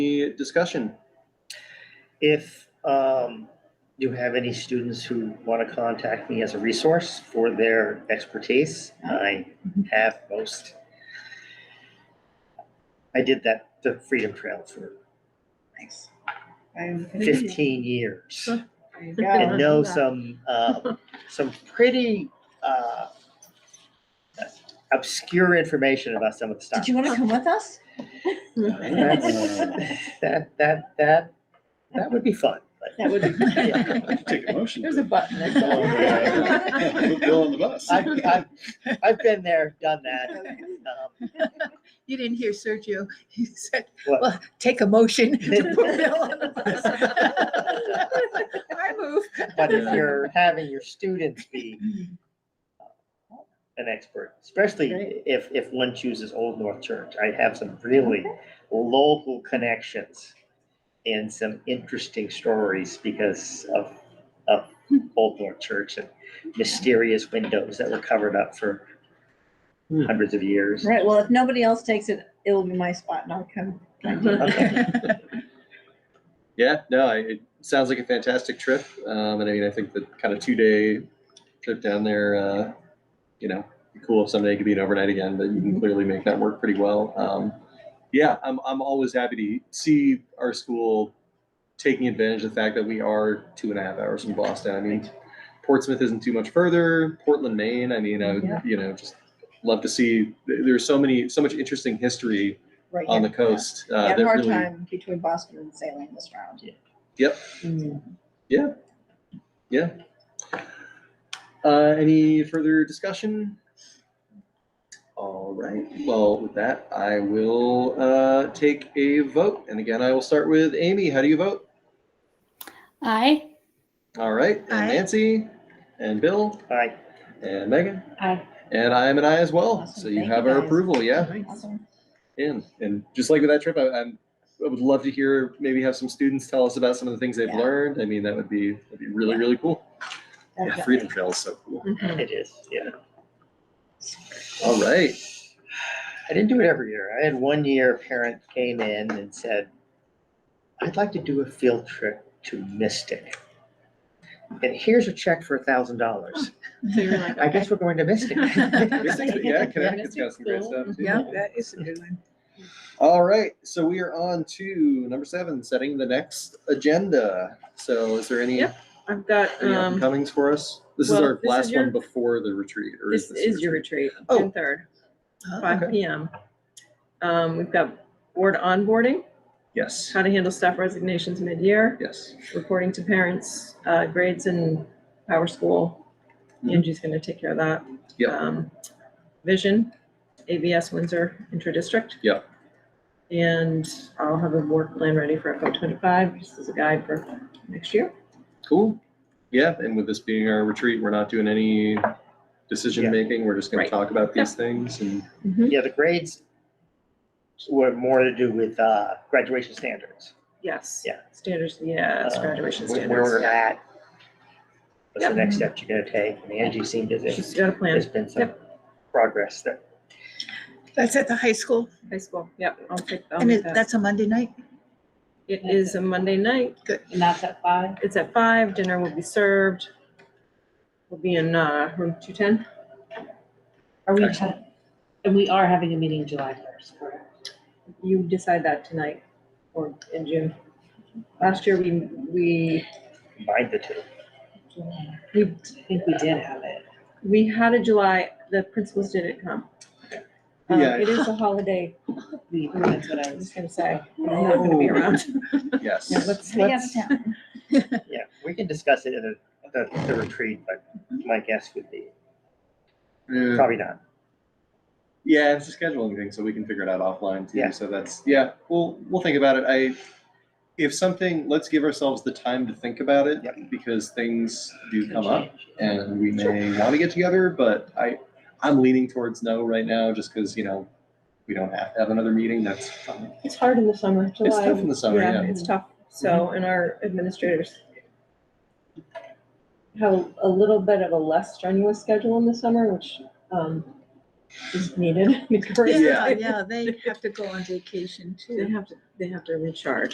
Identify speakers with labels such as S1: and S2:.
S1: Any discussion?
S2: If um, you have any students who want to contact me as a resource for their expertise, I have most. I did that, the Freedom Trail for
S3: Nice. I'm confused.
S2: fifteen years.
S3: There you
S4: I
S2: And
S3: go.
S4: love
S2: know
S4: that.
S2: some, uh, some pretty uh, obscure information about some of the stuff.
S3: Did you want to come with us?
S2: That's- That, that, that, that would be fun, but
S3: That would
S2: Yeah.
S3: be.
S5: Take a motion.
S4: There's a button that
S5: Put Bill on the bus.
S2: I've, I've, I've been there, done that. Um,
S4: You didn't hear Sergio. He said,
S2: What?
S4: well, take a motion to put Bill on the bus. I move.
S2: But if you're having your students be uh, an expert, especially
S4: Right.
S2: if, if one chooses Old North Church, I have some really local connections and some interesting stories because of, of Old North Church and mysterious windows that were covered up for
S1: Hmm.
S2: hundreds of years.
S3: Right, well, if nobody else takes it, it'll be my spot and I'll come.
S1: Yeah, no, I- it sounds like a fantastic trip. Um, and I mean, I think the kind of two day trip down there, uh, you know, be cool if someday it could be an overnight again, but you can
S4: Mm-hmm.
S1: clearly make that work pretty well. Um, yeah, I'm, I'm always happy to see our school taking advantage of the fact that we are two and a half hours from Boston. I mean, Portsmouth isn't too much further. Portland, Maine. I mean, I would,
S4: Yeah.
S1: you know, just love to see. there- There's so many, so much interesting history
S3: Right,
S1: on
S3: yeah.
S1: the coast.
S3: We
S1: Uh,
S3: had
S1: that
S3: a hard
S1: really,
S3: time between Boston and Salem this round.
S1: Uh, any further discussion? All right. Well, with that, I will uh, take a vote. And again, I will start with Amy. How do you vote?
S6: Aye.
S1: All right. And
S4: Aye.
S1: Nancy and Bill
S2: All right,
S1: and Megan.
S6: Aye.
S1: And I am an I as well.
S3: Awesome.
S1: So you
S3: Thank
S1: have
S3: you,
S1: our
S3: guys.
S1: approval. Yeah.
S3: Awesome.
S1: in. And just like with that trip, I, I'm, I would love to hear, maybe have some students tell us about some of the things they've
S3: Yeah.
S1: learned. I mean, that would be, that'd be really,
S3: Yeah.
S1: really cool. Yeah,
S3: Definitely.
S1: Freedom Trail is so cool.
S4: Mm-hmm.
S2: it is, yeah.
S1: All right.
S2: I didn't do it every year. I had one year a parent came in and said, I'd like to do a field trip to Mystic. And here's a check for a thousand dollars.
S4: So you're like,
S2: I guess we're going to Mystic.
S1: Yeah, Connecticut's got some great stuff. too.
S4: Yeah, that is a good one.
S1: All right. So we are on to number seven, setting the next agenda. So is there any,
S7: Yep, I've got,
S1: any
S7: um,
S1: upcomings for us? This is
S7: well,
S1: our
S7: this is
S1: last one
S7: your-
S1: before the retreat or is
S7: this
S1: this?
S7: is your retreat,
S1: Oh.
S7: June third,
S1: okay.
S7: five P M. Um, we've got board onboarding,
S1: Yes,
S7: how to handle staff resignations mid-year,
S1: yes.
S7: reporting to parents, uh, grades in Power School.
S1: Mhm.
S7: Angie's gonna take care of that.
S1: Yep.
S7: Um, Vision, ABS Windsor Interdistrict.
S1: Yep.
S7: And I'll have a work plan ready for FY twenty-five, just as a guide for next year.
S1: Cool. Yeah, and with this being our retreat, we're not doing any
S2: Yeah.
S1: decision making. We're just gonna
S7: Right.
S1: talk about these things and,
S2: Yeah, the grades were more to do with uh, graduation standards,
S7: Yes.
S2: Yeah.
S7: Standards, yeah, it's
S2: Uh,
S7: graduation
S2: where
S7: standards.
S2: where we're at. What's the
S7: Yep.
S2: next step you're gonna take? And Angie seemed as
S7: She's
S2: if
S7: got a plan.
S2: there's been some progress there.
S4: That's at the high school
S7: High school, yep, I'll take, I'll
S4: and
S7: make
S4: it-
S7: that.
S4: that's a Monday night.
S7: It is a Monday night,
S3: And that's at five?
S7: it's at five, dinner will be served. We'll be in, uh, room two ten.
S8: Are we,
S1: Excellent.
S8: ha- and we are having a meeting July first, correct?
S7: You decide that tonight or in June. Last year, we, we,
S2: Combined the two.
S8: We, I think we did have it.
S7: we had a July, the principals didn't come. Um,
S1: Yeah.
S7: It is a holiday,
S8: We, that's what I
S7: I was
S8: was.
S7: gonna say, I'm not gonna be
S1: Oh.
S7: around.
S1: yes.
S7: Yeah, let's,
S3: Stay out of
S7: let's,
S3: town.
S2: Yeah, we can discuss it at the- the, the retreat, but my guess would be
S1: Yeah.
S2: probably not.
S1: Yeah, it's a scheduling thing, so we can figure it out offline too.
S2: Yeah.
S1: So that's yeah, we'll we'll think about it. I if something, let's give ourselves the time to think about it
S2: Yep.
S1: because things do come up, and we may want to get together. But I I'm leaning towards no right now, just because you know we don't have to have another meeting. That's fine.
S7: it's hard in the summer,
S1: it's
S7: July.
S1: tough in the summer. Yeah. Mm-hmm.
S7: It's tough, so, and our administrators have a little bit of a less strenuous schedule in the summer, which, um,
S8: is needed.
S1: Yeah.
S4: Yeah, they have to go on vacation too.
S7: They have to, they have to recharge.